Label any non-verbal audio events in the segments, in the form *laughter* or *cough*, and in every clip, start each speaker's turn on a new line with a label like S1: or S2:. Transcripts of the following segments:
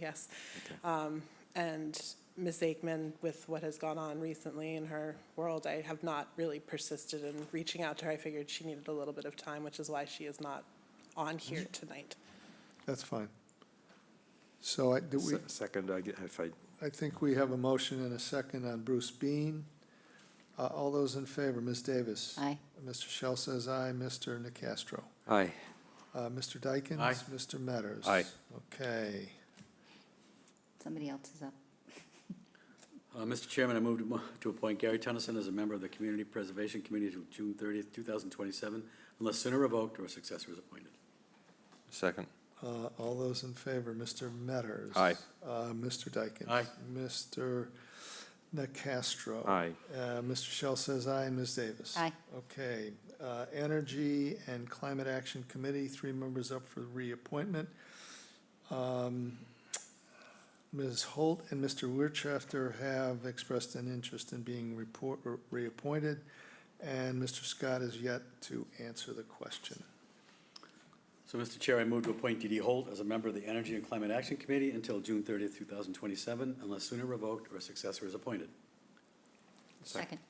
S1: Yes. Um, And Ms. Aikman, with what has gone on recently in her world, I have not really persisted in reaching out to her. I figured she needed a little bit of time, which is why she is not on here
S2: Mm-hmm.
S1: tonight.
S3: That's fine. So I, do we,
S2: Se- Second, I get- if I,
S3: I think we have a motion and a second on Bruce Bean. Uh, all those in favor, Ms. Davis?
S4: Aye.
S3: Mr. Shell says aye, Mr. Nacastro.
S2: aye,
S3: Uh, Mr. Dykens?
S2: Aye.
S3: Mr. Metters?
S2: Aye.
S3: Okay.
S4: Somebody else is up.
S5: Uh, Mr. Chairman, I move to mo- to appoint Gary Tennyson as a member of the Community Preservation Committee to June 30th, 2027, unless sooner revoked or a successor is appointed.
S2: second,
S3: Uh, all those in favor, Mr. Metters?
S2: Aye.
S3: Uh, Mr. Dykens?
S5: Aye.
S3: Mr. Nacastro?
S2: aye,
S3: Uh, Mr. Shell says aye, and Ms. Davis?
S4: Aye.
S3: Okay, uh, Energy and Climate Action Committee, three members up for reappointment. Um, Ms. Holt and Mr. Wirtschafter have expressed an interest in being report, or reappointed, and Mr. Scott is yet to answer the question.
S5: So, Mr. Chair, I move to appoint D.D. Holt as a member of the Energy and Climate Action Committee until June 30th, 2027, unless sooner revoked or a successor is appointed.
S4: Second.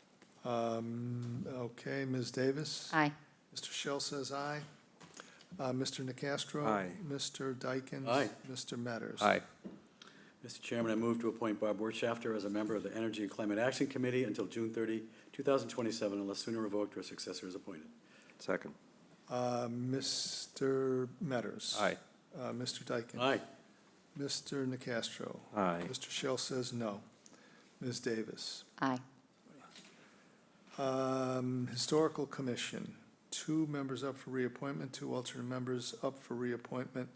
S3: Um, Okay, Ms. Davis?
S4: Aye.
S3: Mr. Shell says aye. Uh, Mr. Nacastro?
S2: Aye.
S3: Mr. Dykens?
S5: Aye.
S3: Mr. Metters?
S2: aye,
S5: Mr. Chairman, I move to appoint Bob Wertschafter as a member of the Energy and Climate Action Committee until June 30, 2027, unless sooner revoked or a successor is appointed.
S2: second,
S3: Uh, Mr. Metters.
S2: aye,
S3: Uh, Mr. Dyken.
S5: Aye.
S3: Mr. Nacastro.
S2: aye,
S3: Mr. Shell says no. Ms. Davis.
S4: Aye.
S3: Um, Historical Commission, two members up for reappointment, two alternate members up for reappointment.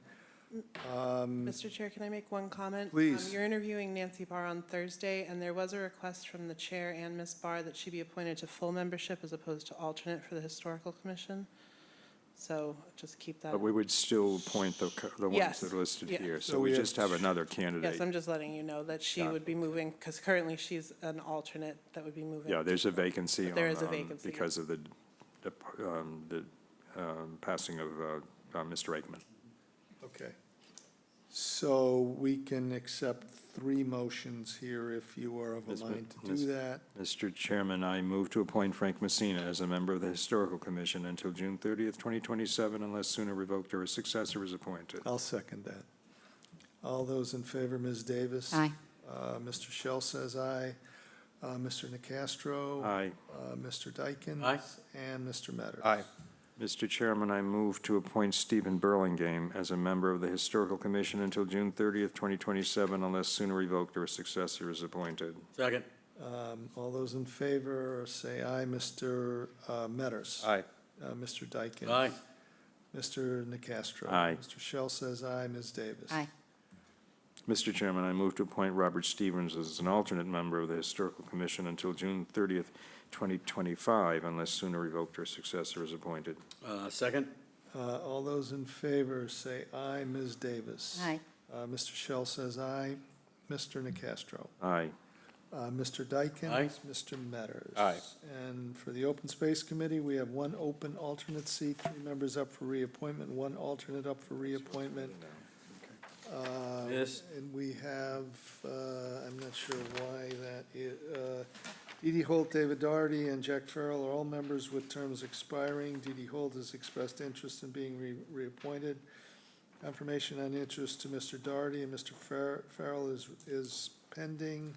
S3: Um,
S1: Mr. Chair, can I make one comment? Um,
S3: Please.
S1: You're interviewing Nancy Barr on Thursday, and there was a request from the chair and Ms. Barr that she be appointed to full membership as opposed to alternate for the Historical Commission. So just keep that.
S2: but we would still appoint the, co- the ones
S1: Yes,
S2: that are listed
S1: yeah.
S2: here,
S3: So
S2: so
S3: we
S2: we
S3: have
S2: just have another
S1: Yes,
S2: candidate.
S1: I'm just letting you know that she
S2: Got it.
S1: would be moving, because currently she's an alternate that would be moving.
S2: Yeah, there's a vacancy on,
S1: There is a
S2: um,
S1: vacancy.
S2: because of the, the, um, the, um, passing of, uh, uh, Mr. Aikman.
S3: Okay. So we can accept three motions here if you are of a
S2: Ms. Ma-
S3: mind to do
S2: Ms.
S3: that.
S2: Mr. Chairman, I move to appoint Frank Messina as a member of the Historical Commission until June thirtieth, twenty twenty-seven, unless sooner revoked or a successor is appointed.
S3: I'll second that. All those in favor, Ms. Davis?
S4: Aye.
S3: Uh, Mr. Shell says aye. Uh, Mr. Nacastro?
S2: Aye.
S3: Uh, Mr. Dykens?
S5: Aye.
S3: And Mr. Metters?
S2: Aye. Mr. Chairman, I move to appoint Stephen Burlingame as a member of the Historical Commission until June 30th, 2027, unless sooner revoked or a successor is appointed.
S5: Second.
S3: Um, All those in favor, say aye. Mr. uh, Metters?
S2: Aye.
S3: Uh, Mr. Dykens?
S5: Aye.
S3: Mr. Nacastro?
S2: Aye.
S3: Mr. Shell says aye. Ms. Davis?
S4: Aye.
S2: Mr. Chairman, I move to appoint Robert Stevens as an alternate member of the Historical Commission until June 30th, 2025, unless sooner revoked or a successor is appointed.
S5: Uh, Second.
S3: Uh, All those in favor, say aye. Ms. Davis?
S4: Aye.
S3: Uh, Mr. Shell says aye. Mr. Nacastro?
S2: Aye.
S3: Uh, Mr. Dykens?
S5: Aye.
S3: Mr. Metters?
S2: Aye.
S3: And for the Open Space Committee, we have one open alternate seat, three members up for reappointment, one alternate up for reappointment. Uh,
S5: Yes.
S3: And we have, uh, I'm not sure why that i- uh, Dee Dee Holt, David Doherty, and Jack Farrell are all members with terms expiring. Dee Dee Holt has expressed interest in being re- reappointed. Confirmation on interest to Mr. Doherty and Mr. Far- Farrell is, is pending.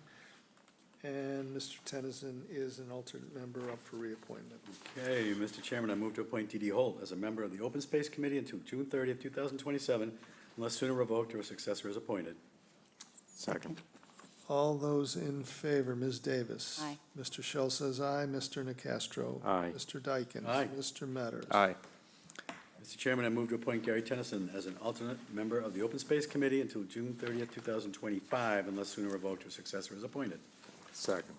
S3: And Mr. Tennyson is an alternate member up for reappointment.
S5: Okay, Mr. Chairman, I move to appoint D.D. Holt as a member of the Open Space Committee until June 30th, 2027, unless sooner revoked or a successor is appointed.
S2: Second.
S3: All those in favor, Ms. Davis?
S4: Aye.
S3: Mr. Shell says aye, Mr. Nacastro?
S2: Aye.
S3: Mr. Dykens?
S5: Aye.
S3: Mr. Metters?
S2: Aye.
S5: Mr. Chairman, I move to appoint Gary Tennyson as an alternate member of the Open Space Committee until June 30th, 2025, unless sooner revoked or successor is appointed.
S2: Second.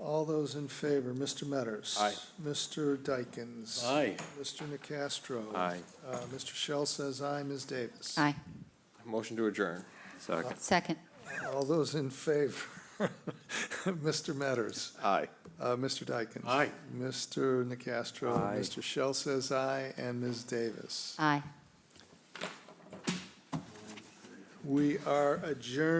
S3: All those in favor, Mr. Metters?
S2: Aye.
S3: Mr. Dykens?
S5: Aye.
S3: Mr. Nacastro?
S2: Aye.
S3: Uh, Mr. Shell says aye, Ms. Davis?
S4: Aye.
S2: Motion to adjourn. Second.
S4: Second.
S3: All those in favor, *laughs* Mr. Metters?
S2: Aye.
S3: Uh, Mr. Dykens?
S5: Aye.
S3: Mr. Nacastro?
S2: Aye.
S3: Mr. Shell says aye, and Ms. Davis?
S4: Aye.
S3: We are adjourned.